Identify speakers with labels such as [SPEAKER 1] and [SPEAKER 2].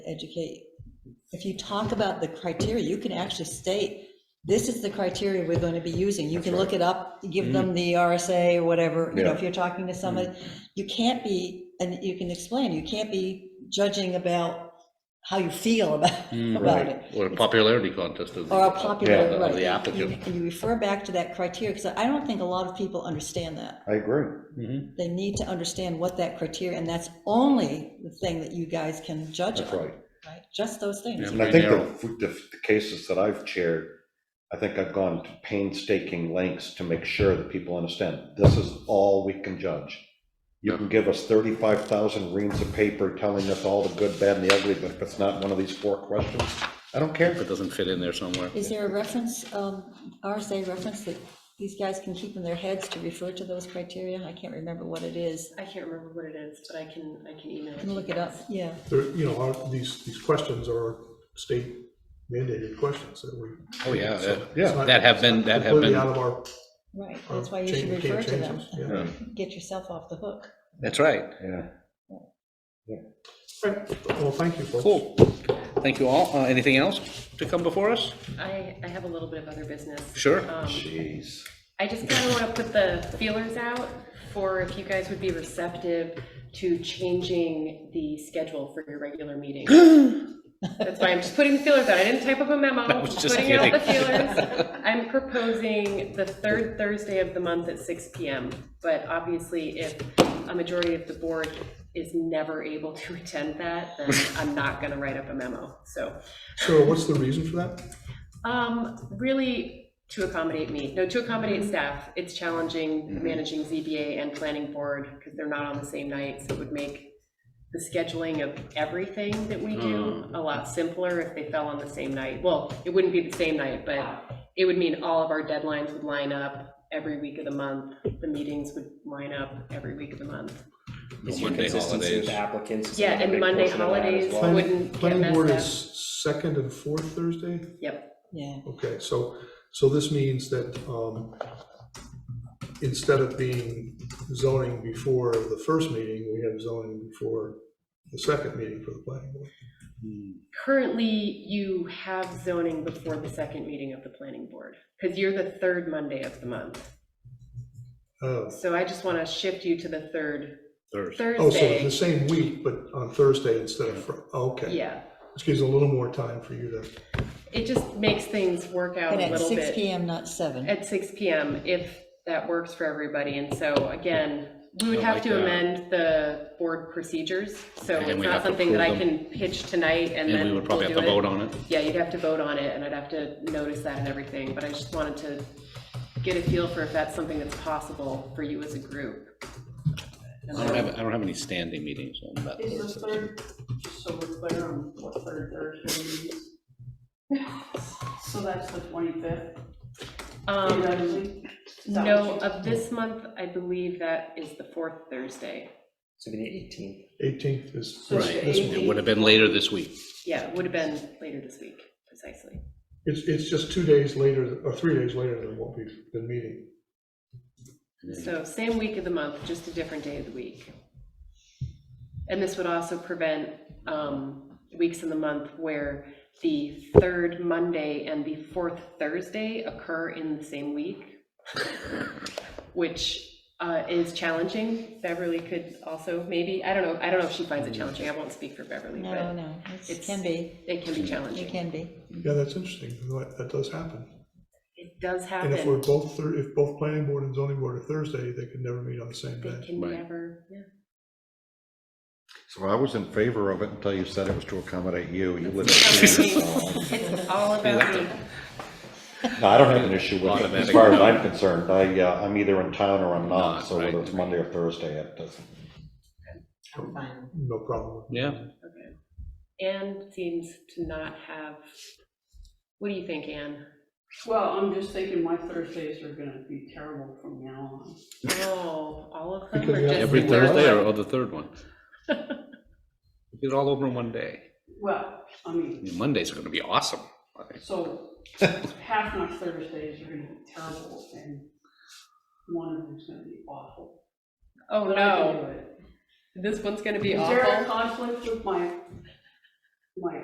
[SPEAKER 1] educate. If you talk about the criteria, you can actually state, this is the criteria we're going to be using. You can look it up, give them the RSA or whatever, you know, if you're talking to somebody. You can't be, and you can explain, you can't be judging about how you feel about, about it.
[SPEAKER 2] Or a popularity contest of the.
[SPEAKER 1] Or a
[SPEAKER 2] of
[SPEAKER 1] popular,
[SPEAKER 2] the-
[SPEAKER 1] right.
[SPEAKER 2] Of the applicant.
[SPEAKER 1] You- You refer back to that criteria, because I don't think a lot of people understand that.
[SPEAKER 3] I agree.
[SPEAKER 1] They need to understand what that criteria, and that's only the thing that you guys can judge
[SPEAKER 3] That's
[SPEAKER 1] on,
[SPEAKER 3] right.
[SPEAKER 1] right? Just those things.
[SPEAKER 2] Yeah.
[SPEAKER 3] And I think the, the the cases that I've chaired, I think I've gone to painstaking lengths to make sure that people understand, this is all we can judge. You can give us thirty-five thousand reams of paper telling us all the good, bad, and the ugly, but if it's not one of these four questions, I don't care.
[SPEAKER 2] If it doesn't fit in there somewhere.
[SPEAKER 1] Is there a reference, um, RSA reference that these guys can keep in their heads to refer to those criteria? I can't remember what it is.
[SPEAKER 4] I can't remember what it is, but I can, I can email it.
[SPEAKER 1] I can look it up, yeah.
[SPEAKER 5] there, you know, our- these, these questions are state mandated questions that we.
[SPEAKER 2] Oh, yeah,
[SPEAKER 5] so
[SPEAKER 2] that-
[SPEAKER 5] it's
[SPEAKER 3] yeah,
[SPEAKER 5] not-
[SPEAKER 2] that have been-
[SPEAKER 5] it's not
[SPEAKER 2] that have been-
[SPEAKER 5] completely Out of our.
[SPEAKER 1] Right,
[SPEAKER 5] our
[SPEAKER 1] that's why you
[SPEAKER 5] chain-
[SPEAKER 1] should
[SPEAKER 5] can of
[SPEAKER 1] refer to them.
[SPEAKER 5] changes, yeah.
[SPEAKER 1] Get yourself off the hook.
[SPEAKER 2] That's right.
[SPEAKER 3] Yeah.
[SPEAKER 5] Right, Well, thank you, folks.
[SPEAKER 2] Cool. Thank you all. Uh, anything else to come before us?
[SPEAKER 4] I, I have a little bit of other business.
[SPEAKER 2] Sure.
[SPEAKER 4] Um,
[SPEAKER 3] Jeez.
[SPEAKER 4] I just kind of want to put the feelers out for if you guys would be receptive to changing the schedule for your regular meeting. That's why I'm just putting the feelers out. I didn't type up a memo.
[SPEAKER 2] I was just
[SPEAKER 4] Putting out the
[SPEAKER 2] kidding.
[SPEAKER 4] feelers. I'm proposing the third Thursday of the month at six PM. But obviously, if a majority of the board is never able to attend that, then I'm not going to write up a memo. So
[SPEAKER 5] So what's the reason for that?
[SPEAKER 4] um, really to accommodate me, no, to accommodate staff. It's challenging managing ZBA and planning board because they're not on the same night. So it would make the scheduling of everything that we do a lot simpler if they fell on the same night. Well, it wouldn't be the same night, but it would mean all of our deadlines would line up every week of the month. The meetings would line up every week of the month.
[SPEAKER 2] No
[SPEAKER 6] Is your
[SPEAKER 2] Monday
[SPEAKER 6] consistency
[SPEAKER 2] holidays.
[SPEAKER 6] with applicants? is
[SPEAKER 4] Yeah,
[SPEAKER 6] another
[SPEAKER 4] and
[SPEAKER 6] big
[SPEAKER 4] Monday
[SPEAKER 6] portion of that
[SPEAKER 4] holidays
[SPEAKER 6] as well.
[SPEAKER 5] Planning-
[SPEAKER 4] wouldn't get
[SPEAKER 5] Planning board
[SPEAKER 4] messed
[SPEAKER 5] is second and fourth Thursday?
[SPEAKER 4] Yep,
[SPEAKER 1] Yeah,
[SPEAKER 5] Okay, so, so this means that, um, instead of being zoning before the first meeting, we have zoning before the second meeting for the planning board.
[SPEAKER 4] currently you have zoning before the second meeting of the planning board because you're the third Monday of the month.
[SPEAKER 5] Oh,
[SPEAKER 4] So I just want to shift you to the third
[SPEAKER 2] Thursday.
[SPEAKER 5] Oh, so the
[SPEAKER 4] Thursday.
[SPEAKER 5] same week, but on Thursday instead of, Fri- oh, okay.
[SPEAKER 4] Yeah,
[SPEAKER 5] This gives a little more time for you to,
[SPEAKER 4] it just makes things work out
[SPEAKER 1] but
[SPEAKER 4] a
[SPEAKER 1] at
[SPEAKER 4] little
[SPEAKER 1] six
[SPEAKER 4] bit.
[SPEAKER 1] PM, not seven.
[SPEAKER 4] At six PM, if that works for everybody. And so again, we would
[SPEAKER 2] I
[SPEAKER 4] have
[SPEAKER 2] like
[SPEAKER 4] to
[SPEAKER 2] that.
[SPEAKER 4] amend the board procedures. So
[SPEAKER 2] And then
[SPEAKER 4] it's
[SPEAKER 2] we'd have
[SPEAKER 4] not
[SPEAKER 2] to
[SPEAKER 4] something that I
[SPEAKER 2] approve them.
[SPEAKER 4] can pitch tonight
[SPEAKER 2] And
[SPEAKER 4] and then
[SPEAKER 2] we
[SPEAKER 4] we'll
[SPEAKER 2] would probably have
[SPEAKER 4] do
[SPEAKER 2] to vote
[SPEAKER 4] it.
[SPEAKER 2] on it.
[SPEAKER 4] Yeah, you'd have to vote on it and I'd have to notice that and everything. But I just wanted to get a feel for if that's something that's possible for you as a group. And
[SPEAKER 2] I don't
[SPEAKER 4] then-
[SPEAKER 2] have, I don't have any standing meetings on that.
[SPEAKER 7] Is the
[SPEAKER 2] Thursday.
[SPEAKER 7] third, so we're clear on what third Thursday is? So that's the twenty-fifth,
[SPEAKER 4] Um,
[SPEAKER 7] theoretically? Is that
[SPEAKER 4] No,
[SPEAKER 7] what you-
[SPEAKER 4] of this month, I believe that is the fourth Thursday.
[SPEAKER 6] So it'd be the eighteenth.
[SPEAKER 5] 18th is,
[SPEAKER 7] So it's
[SPEAKER 2] Right,
[SPEAKER 7] the
[SPEAKER 2] this- it
[SPEAKER 7] 18th.
[SPEAKER 2] would have been later this week.
[SPEAKER 4] Yeah, it would have been later this week, precisely.
[SPEAKER 5] it's, it's just two days later, or three days later than what we've been meeting.
[SPEAKER 4] So same week of the month, just a different day of the week. And this would also prevent um, weeks in the month where the third Monday and the fourth Thursday occur in the same week, which uh, is challenging. Beverly could also maybe, I don't know, I don't know if she finds it challenging. I won't speak for Beverly,
[SPEAKER 1] No,
[SPEAKER 4] but
[SPEAKER 1] no, it
[SPEAKER 4] it's-
[SPEAKER 1] can be,
[SPEAKER 4] it can be
[SPEAKER 1] it
[SPEAKER 4] challenging.
[SPEAKER 1] can be.
[SPEAKER 5] Yeah, that's interesting, that, that does happen.
[SPEAKER 4] It does
[SPEAKER 5] And if we're
[SPEAKER 4] happen.
[SPEAKER 5] both, Thur- if both planning board and zoning board are Thursday, they could never meet on the same
[SPEAKER 4] They
[SPEAKER 5] day.
[SPEAKER 4] can
[SPEAKER 2] Right.
[SPEAKER 4] never, yeah.
[SPEAKER 3] So I was in favor of it until you said it was to accommodate you. You live.
[SPEAKER 4] It's all about me.
[SPEAKER 3] No, I don't have an issue with it. As
[SPEAKER 2] Automatic.
[SPEAKER 3] far as I'm concerned, I, uh, I'm either in town or I'm
[SPEAKER 2] Not,
[SPEAKER 3] not, so whether
[SPEAKER 2] right.
[SPEAKER 3] it's Monday or Thursday, it doesn't.
[SPEAKER 7] I'm fine.
[SPEAKER 5] No problem.
[SPEAKER 2] Yeah,
[SPEAKER 4] Okay. Anne seems to not have, what do you think, Anne?
[SPEAKER 7] Well, I'm just thinking my Thursdays are gonna be terrible from now on.
[SPEAKER 4] Oh, all of them
[SPEAKER 5] Because
[SPEAKER 4] are
[SPEAKER 5] we
[SPEAKER 4] just.
[SPEAKER 5] have-
[SPEAKER 2] every
[SPEAKER 4] the
[SPEAKER 2] Thursday
[SPEAKER 4] worst?
[SPEAKER 2] or or the third one. Get it all over in one day.
[SPEAKER 7] Well, I
[SPEAKER 2] I
[SPEAKER 7] mean,
[SPEAKER 2] mean, Mondays are gonna be awesome.
[SPEAKER 7] so half my Thursdays are gonna be terrible and one of them's gonna be awful.
[SPEAKER 4] Oh,
[SPEAKER 7] But I can
[SPEAKER 4] no,
[SPEAKER 7] do it.
[SPEAKER 4] this one's gonna be
[SPEAKER 7] Is there a
[SPEAKER 4] awful.
[SPEAKER 7] conflict with my my